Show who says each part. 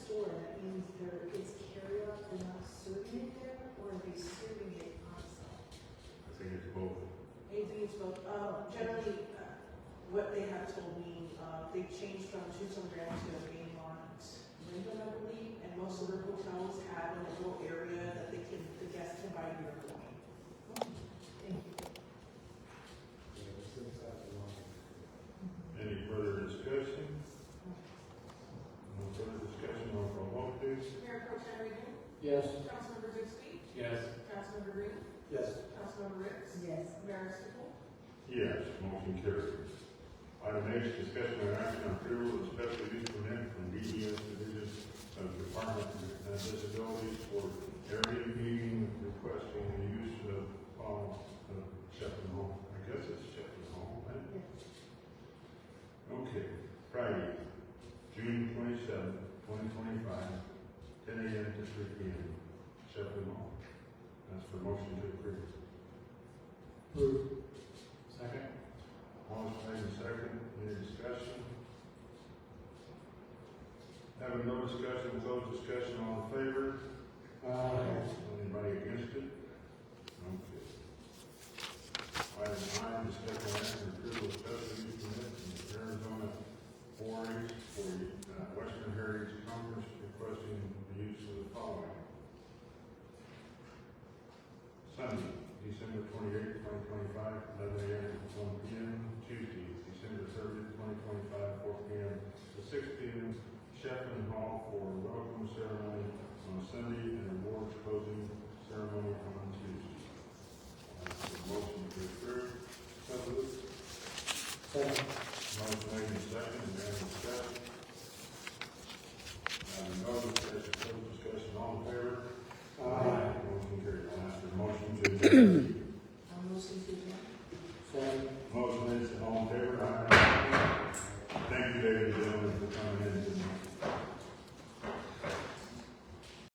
Speaker 1: generally, uh, what they have told me, uh, they changed from Tucson Grand to a game on Wyndham, I believe, and most of the hotels have a little area that they can, the guests can buy beer and wine.
Speaker 2: Any further discussion? No further discussion, roll call vote please.
Speaker 1: Mayor Pro Tem Reagan,
Speaker 3: Yes.
Speaker 1: Councilmember Bixby,
Speaker 3: Yes.
Speaker 1: Councilmember Green,
Speaker 3: Yes.
Speaker 1: Councilmember Ritz,
Speaker 4: Yes.
Speaker 1: Mayor Sippel.
Speaker 2: Yes, motion carries. Item H, discussion and action on approval of special use permit from DES Division of Department of Disabilities for area meeting requesting the use of, um, of Shepherd Hall. I guess it's Shepherd Hall, right? Okay, Friday, June twenty-seventh, twenty twenty-five, ten AM to three PM, Shepherd Hall. That's for motion to approve.
Speaker 3: Approved. Second.
Speaker 2: Motion made in second, any discussion? Having no discussion, close discussion, all in favor? Anybody against it? Okay. Item nine, discuss and action on approval of E special use permit from the Arizona four H for uh, Western Heritage Conference requesting the use of the following. Sunday, December twenty-eighth, twenty twenty-five, eleven AM to one PM. Tuesday, December thirtieth, twenty twenty-five, four PM to six PM. Sheffield Hall for welcome ceremony on Sunday and awards closing ceremony on Tuesday. I have a Motion to approve. So moved.
Speaker 3: Second.
Speaker 2: Motion made in second, and then discussion. Uh, Having no discussion, close discussion, all in favor? Motion carried. I ask for a motion to adjourn.
Speaker 1: I'm listening to you.
Speaker 3: Second.
Speaker 2: Motion is all in favor? Aye. Thank you, ladies and gentlemen, for coming in tonight.